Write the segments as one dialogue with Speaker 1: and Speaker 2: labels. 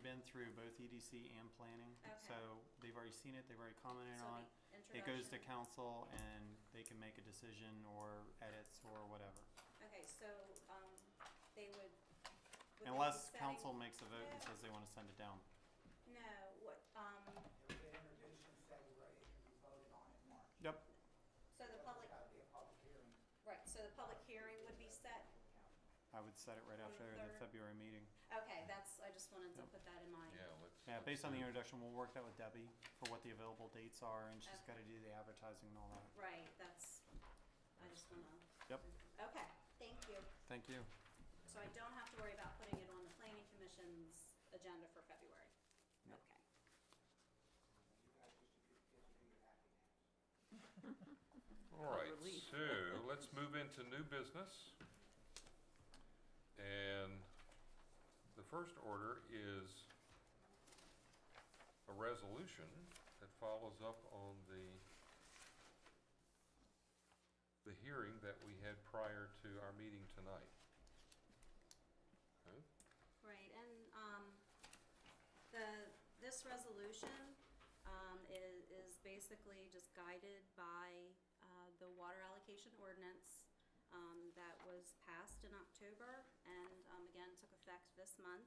Speaker 1: been through both EDC and planning.
Speaker 2: Okay.
Speaker 1: So they've already seen it, they've already commented
Speaker 2: So
Speaker 1: on.
Speaker 2: the
Speaker 1: It goes to
Speaker 2: introduction-
Speaker 1: council and they can make a decision or edits or whatever.
Speaker 2: Okay, so, um, they would. would they be
Speaker 1: Unless
Speaker 2: setting-
Speaker 1: council makes a vote and says they wanna send it down.
Speaker 2: No, what, um,
Speaker 3: It'll get introduced in February, it can be voted on in March.
Speaker 1: Yep.
Speaker 2: so the public,
Speaker 3: It's gotta be a public hearing.
Speaker 2: right, so the public hearing would be set?
Speaker 1: I would set it right
Speaker 2: On the
Speaker 1: after
Speaker 2: third.
Speaker 1: the February meeting.
Speaker 2: Okay, that's, I just wanted to
Speaker 1: Yep.
Speaker 2: put that in mind.
Speaker 4: Yeah, let's.
Speaker 1: Yeah,
Speaker 4: let's
Speaker 1: based on the
Speaker 4: do-
Speaker 1: introduction, we'll work that with Debbie for what the available dates are and she's
Speaker 2: Okay.
Speaker 1: gotta do the advertising and all that.
Speaker 2: Right, that's, I just wanna.
Speaker 1: Yep.
Speaker 2: Okay, thank you.
Speaker 1: Thank you.
Speaker 2: So I don't have to worry about putting it on the planning commission's agenda for February?
Speaker 1: No.
Speaker 2: Okay.
Speaker 3: You guys just, just do your happiness.
Speaker 4: All right, so let's move into new business. And the first order is a resolution that follows up on the, the hearing that we had prior to our meeting tonight. Okay?
Speaker 2: Right, and, um, the, this resolution, um, is, is basically just guided by, uh, the water allocation ordinance, um, that was passed in October and, um, again, took effect this month.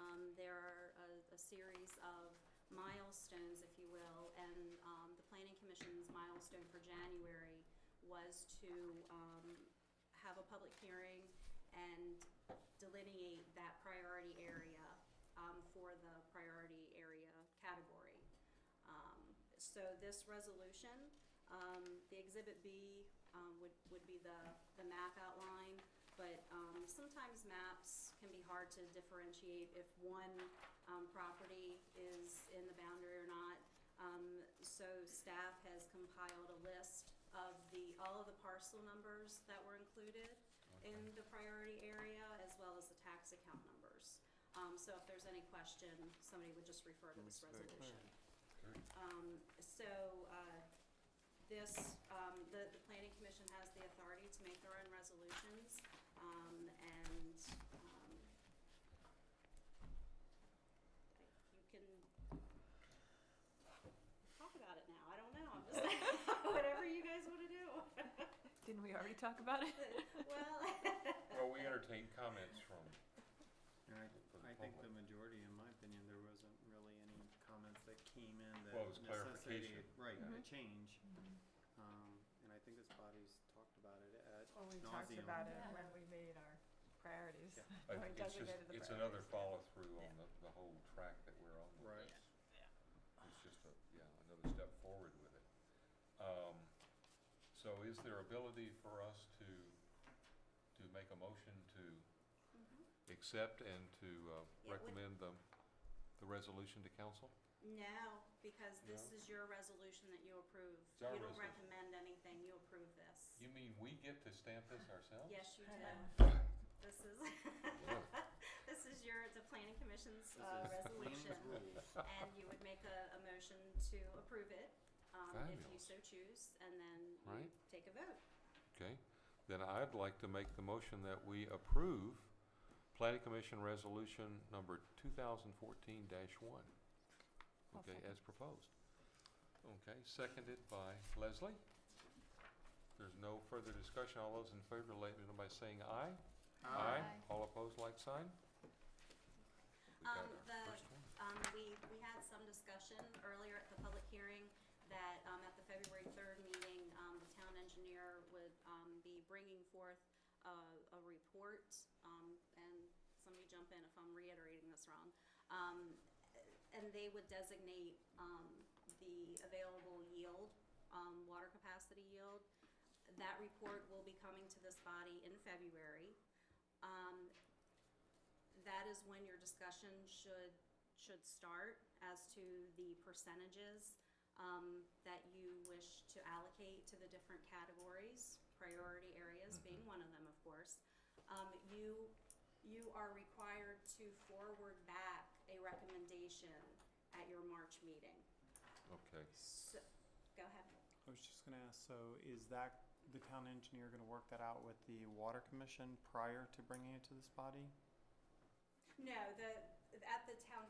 Speaker 2: Um, there are a, a series of milestones, if you will, and, um, the planning commission's milestone for January was to, um, have a public hearing and delineate that priority area um, for the priority area category. Um, So this resolution, um, the Exhibit B um, would, would be the, the map outline, but um, sometimes maps can be hard to differentiate if one um, property is in the boundary or not. Um, So staff has compiled a list of the, all of the parcel numbers that were included in the priority area as well as the tax account numbers. Um, so if there's any question, somebody would just refer to this resolution. Um, so, uh, this, um, the, the planning commission has the authority to make their own resolutions, um, and, um, you can talk about it now, I don't know, I'm just, whatever you guys wanna do.
Speaker 5: Didn't we already talk about it?
Speaker 2: Well,
Speaker 4: Well, we entertain comments from, For the
Speaker 1: I think the
Speaker 4: public.
Speaker 1: majority, in my opinion, there wasn't really any comments that came in
Speaker 4: Well, it was
Speaker 1: that necessitated,
Speaker 4: clarification.
Speaker 1: right,
Speaker 4: Yeah.
Speaker 1: a
Speaker 2: Mm-hmm.
Speaker 1: change. Um, and I think this body's talked about it at
Speaker 5: Well, we talked
Speaker 1: nauseam.
Speaker 5: about it
Speaker 6: Yeah.
Speaker 5: when we made our priorities.
Speaker 1: Yeah.
Speaker 4: I
Speaker 5: Or
Speaker 4: think it's just,
Speaker 5: designated the
Speaker 4: it's another
Speaker 5: priorities.
Speaker 4: follow-through
Speaker 5: Yeah.
Speaker 4: on the, the whole track that we're on. with
Speaker 1: Right.
Speaker 4: this. It's just a, yeah, another step forward with it. Um, so is there ability for us to, to make a motion to accept and to,
Speaker 2: Yeah,
Speaker 4: uh,
Speaker 2: would-
Speaker 4: recommend the, the resolution to council?
Speaker 2: No, because this
Speaker 4: No?
Speaker 2: is your resolution that you approve.
Speaker 4: It's
Speaker 2: You
Speaker 4: our
Speaker 2: don't
Speaker 4: resolution.
Speaker 2: recommend anything, you approve this.
Speaker 4: You mean we get to stamp this ourselves?
Speaker 2: Yes, you
Speaker 5: I
Speaker 2: do. This is, this is your, the planning commission's uh,
Speaker 1: This is
Speaker 2: resolution.
Speaker 1: planned rules.
Speaker 2: And you would make a, a motion to approve it, um, if you
Speaker 4: Fabulous.
Speaker 2: so choose, and then you
Speaker 4: Right.
Speaker 2: take a vote.
Speaker 4: Okay, then I'd like to make the motion that we approve Planning Commission Resolution number two thousand fourteen one.
Speaker 5: I'll
Speaker 4: Okay,
Speaker 5: second.
Speaker 4: as proposed. Okay, seconded by Leslie. There's no further discussion. All those in favor, let me know by saying aye. Uh, All opposed, like sign? We got
Speaker 2: Um,
Speaker 4: our
Speaker 2: the-
Speaker 4: first one.
Speaker 2: Um, we, we had some discussion earlier at the public hearing that, um, at the February third meeting, um, the town engineer would, um, be bringing forth a, a report, um, and somebody jump in if I'm reiterating this wrong. Um, and they would designate, um, the available yield, um, water capacity yield. That report will be coming to this body in February. Um, that is when your discussion should, should start as to the percentages um, that you wish to allocate to the different categories, priority areas being one of them, of course. Um, you, you are required to forward back a recommendation at your March meeting.
Speaker 4: Okay,
Speaker 2: So, go ahead.
Speaker 1: I was just gonna ask, so is that, the town engineer gonna work that out with the water commission prior to bringing it to this body?
Speaker 2: No, the, at the town